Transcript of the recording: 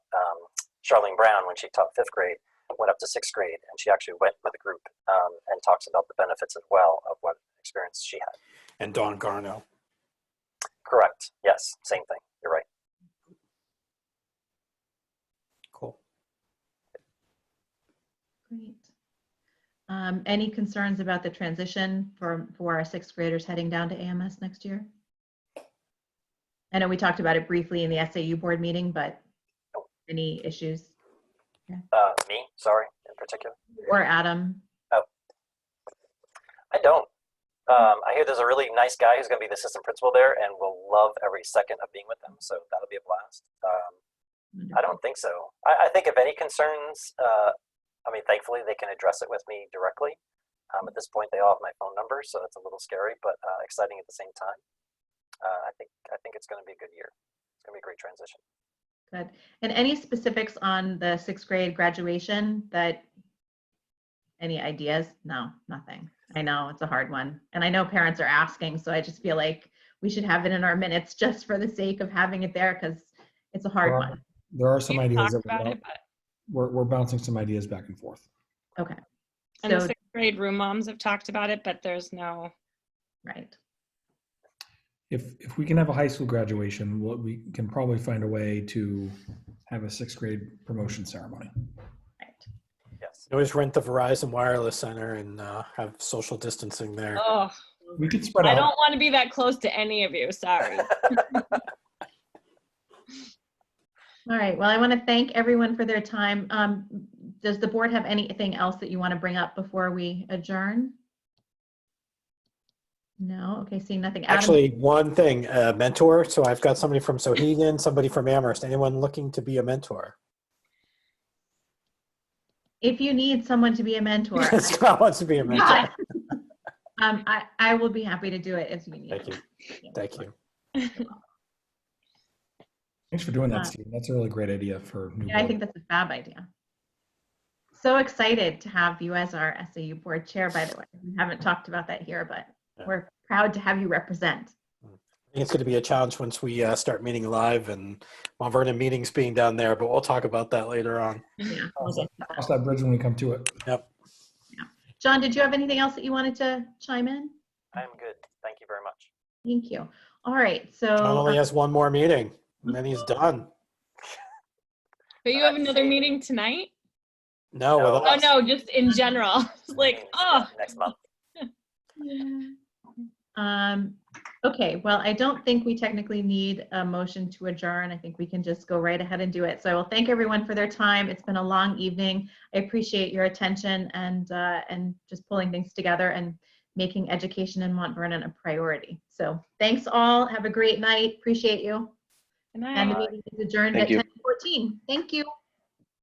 um, Charlene Brown, when she taught fifth grade, went up to sixth grade, and she actually went with a group um, and talks about the benefits as well of what experience she had. and Don Garno. Correct. Yes, same thing. You're right. Cool. Great. Um, any concerns about the transition for, for our sixth graders heading down to AMS next year? I know we talked about it briefly in the SAU board meeting, but any issues? Uh, me, sorry, in particular. Or Adam? I don't. Um, I hear there's a really nice guy who's going to be the assistant principal there, and will love every second of being with them. So that'll be a blast. Um, I don't think so. I, I think if any concerns, uh, I mean, thankfully they can address it with me directly. Um, at this point, they all have my phone number, so that's a little scary, but uh, exciting at the same time. Uh, I think I think it's going to be a good year. It's going to be a great transition. Good. And any specifics on the sixth grade graduation that, any ideas? No, nothing. I know, it's a hard one. And I know parents are asking, so I just feel like we should have it in our minutes just for the sake of having it there because it's a hard Or- one. There are some We've ideas talked that about we're, it, but- we're, we're bouncing some ideas back and forth. And the So, sixth grade room moms have talked about it, but there's no, right, If, if we can have a high school graduation, we'll- we can probably find a way to have a sixth grade promotion ceremony. right. Yes. You always rent the Verizon Wireless Center and uh, have social distancing there. oh, We could spread I out. don't want to be that close to any of you. Sorry. All right, well, I want to thank everyone for their time. Um, Does the board have anything else that you want to bring up before we adjourn? No, okay, seeing nothing. Adam? Actually, one thing, a mentor. So I've got somebody from Sohegan, somebody from Amherst. Anyone looking to be a mentor? If you need someone to be a mentor, I- Scott wants to be a mentor. God. Um, I, I will be happy to do it if you need. Thank you. Thank you. Thanks for doing Uh, that, Steve. That's a really great idea for. new Yeah, I board. think that's a fab idea. So excited to have you as our SAU board chair, by the way. We haven't talked about that here, but Yeah. we're proud to have you represent. I think it's going to be a challenge once we uh, start meeting live and Mount Vernon meetings being down there, but we'll talk about that later on. Yeah, we'll get to that. Cross that bridge when we come to it. John, did you have anything else that you wanted to chime in? I'm good. Thank you very much. Thank you. All right, Oh, John only so, uh, has one more meeting and then he's done. But you have another meeting tonight? No, No. with Oh, us. no, just in general. It's like, Meetings, yeah, oh, Next month. um, okay, well, I don't think we technically need a motion to adjourn. I think we can just go right ahead and do it. So I will thank everyone for their time. It's been a long evening. I appreciate your attention and, uh, and just pulling things together and making education in Mont Vernon a priority. So thanks all. Have a great night. Appreciate you. good night. And the meeting is adjourned at Thank you. 10:14. Thank you.